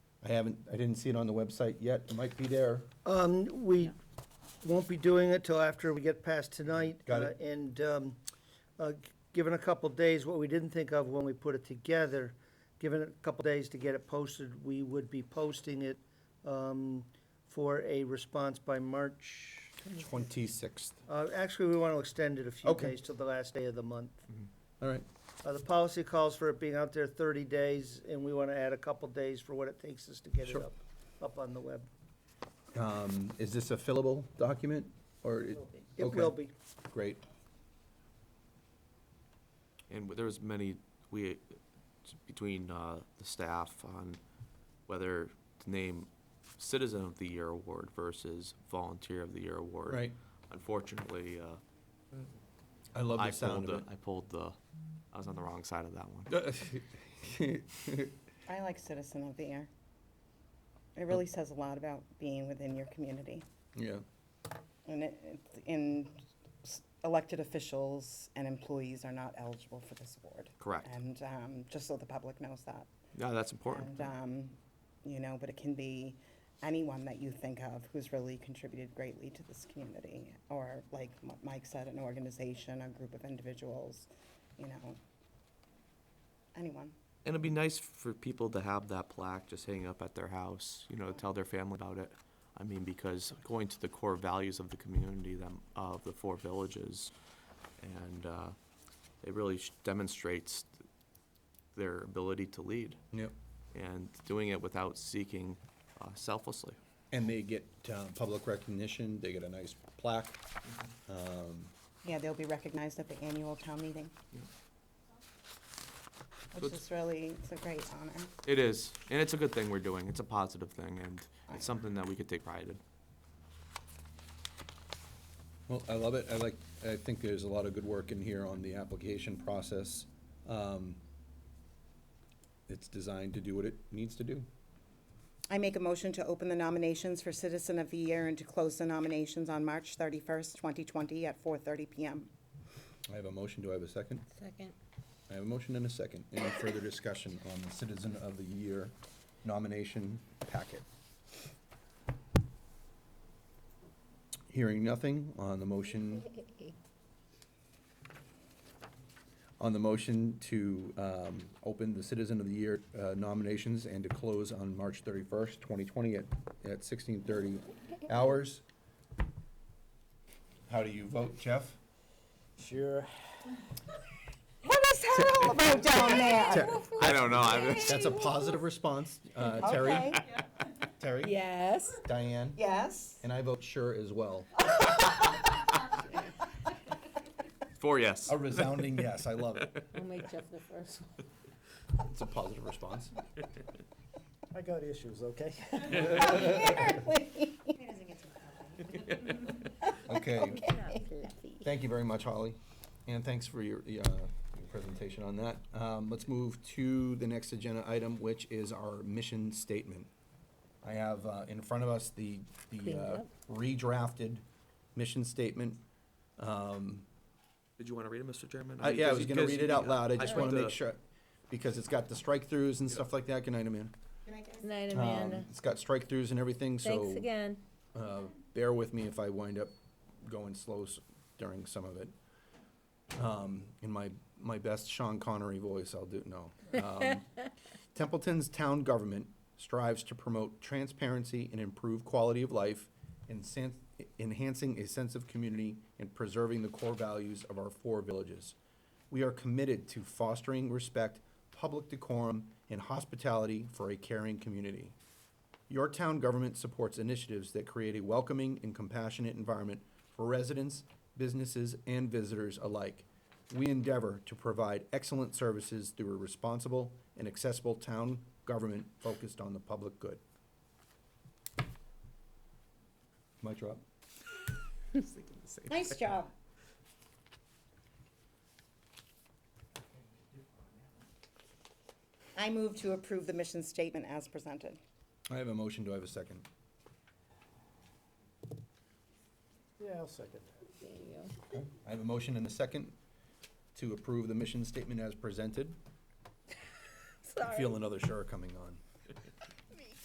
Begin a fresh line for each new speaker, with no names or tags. I haven't, I didn't see it on the website yet. It might be there.
Um, we won't be doing it till after we get past tonight.
Got it.
uh, And, um, uh, given a couple of days, what we didn't think of when we put it together, given a couple of days to get it posted, we would be posting it, um, for a response by March.
Twenty-sixth.
Uh, actually, we want to extend it a few
Okay.
days till the last day of the month.
All right,
Uh, the policy calls for it being out there thirty days, and we want to add a couple of days for what it takes us to get it
Sure.
up, up on the web.
um, is this a fillable document or? it-
It
Okay.
will be.
Great.
And there was many, we, between uh, the staff on whether to name Citizen of the Year Award versus Volunteer of the Year Award.
Right.
Unfortunately, uh,
I love
I
the sound
pulled the,
of
I pulled the, I was on the wrong side of that one.
it.
I like Citizen of the Year. It really says a lot about being within your community.
Yeah,
And it, it's in, s- elected officials and employees are not eligible for this award.
Correct.
And, um, just so the public knows that.
Yeah, that's important.
And, um, you know, but it can be anyone that you think of who's really contributed greatly to this community. Or like M- Mike said, an organization, a group of individuals, you know, anyone.
And it'd be nice for people to have that plaque just hanging up at their house, you know, to tell their family about it. I mean, because going to the core values of the community, them, of the four villages, and, uh, it really sh- demonstrates their ability to lead
yep.
and doing it without seeking uh, selflessly.
And they get uh, public recognition, they get a nice plaque. Um,
Yeah, they'll be recognized at the annual town meeting.
Yeah. So
Which
it's-
is really, it's a great honor.
It is, and it's a good thing we're doing. It's a positive thing, and it's something that we could take pride in.
Well, I love it. I like, I think there's a lot of good work in here on the application process. Um, It's designed to do what it needs to do.
I make a motion to open the nominations for Citizen of the Year and to close the nominations on March thirty-first, twenty twenty at four thirty PM.
I have a motion. Do I have a second?
Second.
I have a motion and a second. Any further discussion on the Citizen of the Year nomination packet? Hearing nothing on the motion, on the motion to um, open the Citizen of the Year uh, nominations and to close on March 31st, 2020 at at 16:30 hours. How do you vote, Jeff?
Sure.
What is Harold right down there?
I don't know, I,
That's a positive response. Uh, Terry?
Okay.
Terry?
Yes.
Diane?
Yes?
And I vote sure as well.
four yes.
A resounding yes, I love it.
I'll make Jeff the first one.
It's a positive response.
I got issues, okay?
Okay, thank you very much, Holly, and thanks for your, uh, your presentation on that. Um, let's move to the next agenda item, which is our mission statement. I have, uh, in front of us the, the,
Clean it
uh,
up.
redrafted mission statement. Um,
Did you want to read it, Mr. Chairman?
I,
mean,
Uh, yeah, I
because-
was gonna
because
read
you-
it out loud, I
I
just
put
wanna
the-
make sure, because it's got the strike-throughs and stuff like that, good night, Amanda.
Good night,
Um,
Amanda.
It's got strike-throughs and everything, so.
Thanks again.
Uh, bear with me if I wind up going slow s- during some of it. Um, in my, my best Sean Connery voice, I'll do, no. Um, Templeton's town government strives to promote transparency and improve quality of life, ensan- enhancing a sense of community and preserving the core values of our four villages. We are committed to fostering respect, public decorum, and hospitality for a caring community. Your town government supports initiatives that create a welcoming and compassionate environment for residents, businesses, and visitors alike. We endeavor to provide excellent services through a responsible and accessible town government focused on the public good. Mic drop.
Nice job. I move to approve the mission statement as presented.
I have a motion. Do I have a second?
Yeah, I'll second
There you go.
I have a motion and a second to approve the mission statement as presented. I
Sorry.
Feel another sure coming on.